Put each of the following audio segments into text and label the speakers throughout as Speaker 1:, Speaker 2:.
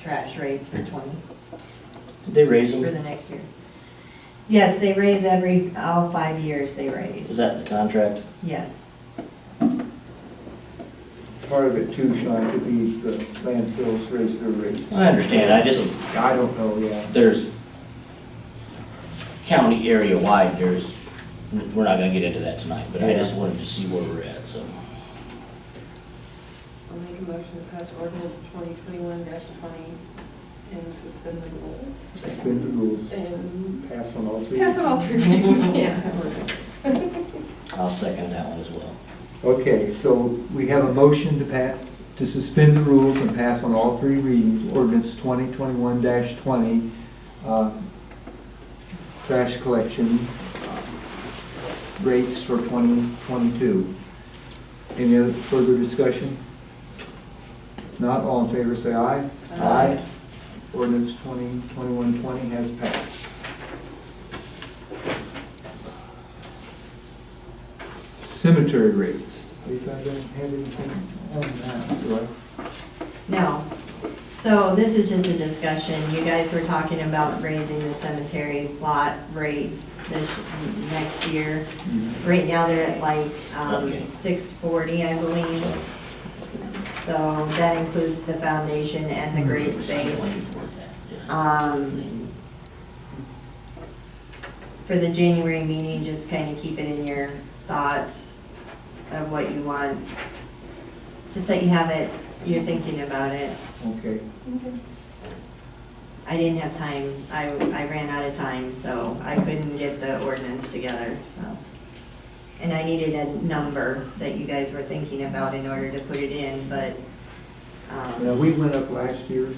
Speaker 1: trash rates for twenty,
Speaker 2: Did they raise
Speaker 1: for
Speaker 2: them?
Speaker 1: the next year. Yes, they raise every, all five years they
Speaker 2: Is
Speaker 1: raise,
Speaker 2: that in the contract?
Speaker 1: yes.
Speaker 3: Part of it too, Sean, could be the landfills raise their rates.
Speaker 2: I understand, I just,
Speaker 3: I don't know, yeah.
Speaker 2: there's county area wide, there's, we're not gonna get into that tonight, but I just wanted to see where we're at, so.
Speaker 4: I'll make a motion to pass ordinance twenty twenty-one twenty and suspend the rules.
Speaker 3: Suspend the rules,
Speaker 4: And
Speaker 3: pass on all three.
Speaker 4: pass on all three readings, yeah. ordinance.
Speaker 2: I'll second that one as well.
Speaker 3: Okay, so we have a motion to pass, to suspend the rules and pass on all three readings, ordinance twenty twenty-one twenty, uh, trash collection uh, rates for twenty twenty-two. Any other further discussion? Not all in favor, say aye.
Speaker 4: Aye.
Speaker 3: Ordinance twenty twenty-one twenty has passed. Cemetery rates. Lisa, I don't have anything on that, do I?
Speaker 1: No. So this is just a discussion. You guys were talking about raising the cemetery plot rates this, next year.
Speaker 3: Mm-hmm.
Speaker 1: Right now, they're at like, um,
Speaker 2: Okay.
Speaker 1: six forty, I believe. So that includes the foundation and the grave space. Um, for the January meeting, just kind of keep it in your thoughts of what you want. Just that you have it, you're thinking about it.
Speaker 3: Okay,
Speaker 1: I didn't have time, I, I ran out of time, so I couldn't get the ordinance together, so. And I needed a number that you guys were thinking about in order to put it in, but,
Speaker 3: now,
Speaker 1: um,
Speaker 3: we went up last year,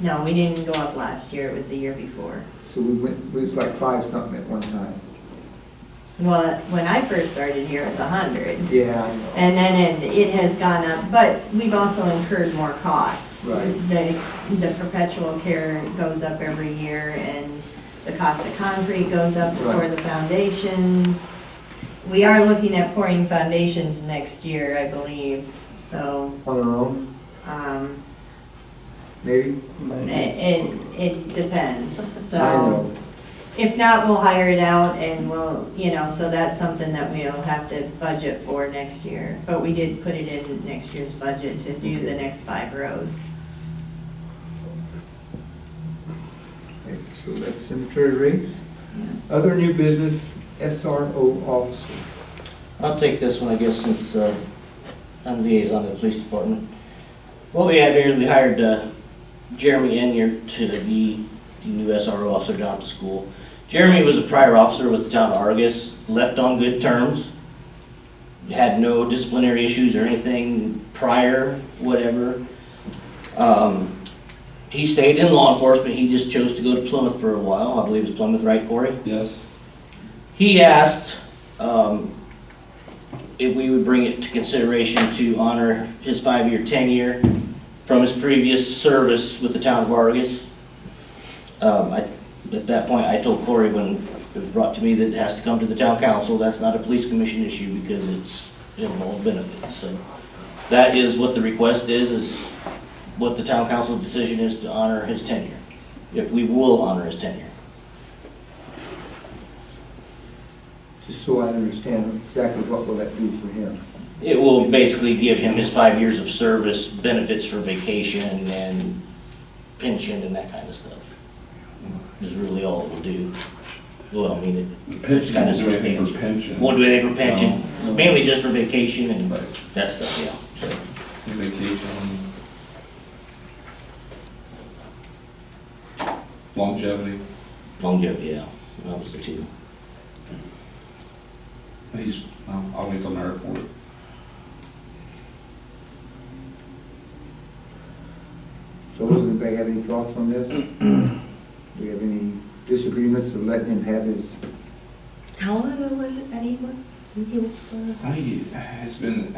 Speaker 1: no, we didn't go up last year, it was the year before.
Speaker 3: so we went, it was like five something at one time.
Speaker 1: Well, when I first started here, it was a hundred,
Speaker 3: Yeah, I know.
Speaker 1: and then it, it has gone up, but we've also incurred more costs.
Speaker 3: Right.
Speaker 1: The, the perpetual care goes up every year, and the cost of concrete goes up for
Speaker 3: Right.
Speaker 1: the foundations. We are looking at pouring foundations next year, I believe, so,
Speaker 3: On our own,
Speaker 1: um,
Speaker 3: maybe?
Speaker 1: it, it, it depends, so.
Speaker 3: I know.
Speaker 1: If not, we'll hire it out and we'll, you know, so that's something that we'll have to budget for next year. But we did put it in next year's budget to do the next five rows.
Speaker 3: Okay, So that's cemetery rates. Other new business, SRO officer.
Speaker 2: I'll take this one, I guess, since uh, I'm liaison to the police department. What we have here is we hired uh, Jeremy Enyer to be the new SRO officer down at the school. Jeremy was a prior officer with the town of Argus, left on good terms, had no disciplinary issues or anything prior, whatever. Um, He stayed in law enforcement, he just chose to go to Plymouth for a while, I believe it's Plymouth, right, Corey?
Speaker 5: Yes.
Speaker 2: He asked um, if we would bring it to consideration to honor his five-year tenure from his previous service with the town of Argus. Um, I- At that point, I told Corey when it was brought to me that it has to come to the town council. That's not a police commission issue because it's involved benefits. So that is what the request is, is what the town council's decision is to honor his tenure, if we will honor his tenure.
Speaker 3: Just so I understand exactly what will that do for him.
Speaker 2: It will basically give him his five years of service, benefits for vacation and pension and that kind of stuff. Is really all it will do. Well, I mean, it
Speaker 5: Pension,
Speaker 2: kinda
Speaker 5: do anything for
Speaker 2: substantial.
Speaker 5: pension.
Speaker 2: won't do anything for pension,
Speaker 3: No.
Speaker 2: mainly just for vacation and
Speaker 5: Right.
Speaker 2: that stuff, yeah. So,
Speaker 5: Vacation. Longevity.
Speaker 2: Longevity, yeah, that was the two.
Speaker 5: He's, well, I'll wait till my report.
Speaker 3: So does anybody have any thoughts on this? Do we have any disagreements of letting him have his,
Speaker 1: How long ago was it that he was, he was for?
Speaker 5: I, it's been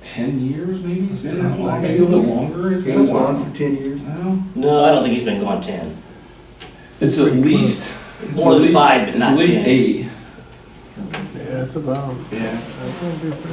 Speaker 5: ten years maybe? It's been that long, maybe a little longer. It's
Speaker 3: he
Speaker 5: been a
Speaker 3: was on
Speaker 5: while.
Speaker 3: for ten years?
Speaker 5: Well,
Speaker 2: No, I don't think he's been gone ten.
Speaker 5: It's at least. it's
Speaker 2: More
Speaker 5: at
Speaker 2: than
Speaker 5: least-
Speaker 2: five, but not
Speaker 5: It's at least
Speaker 2: ten.
Speaker 5: eight.
Speaker 6: Yeah, it's about,
Speaker 5: Yeah.
Speaker 6: I think it'd be pretty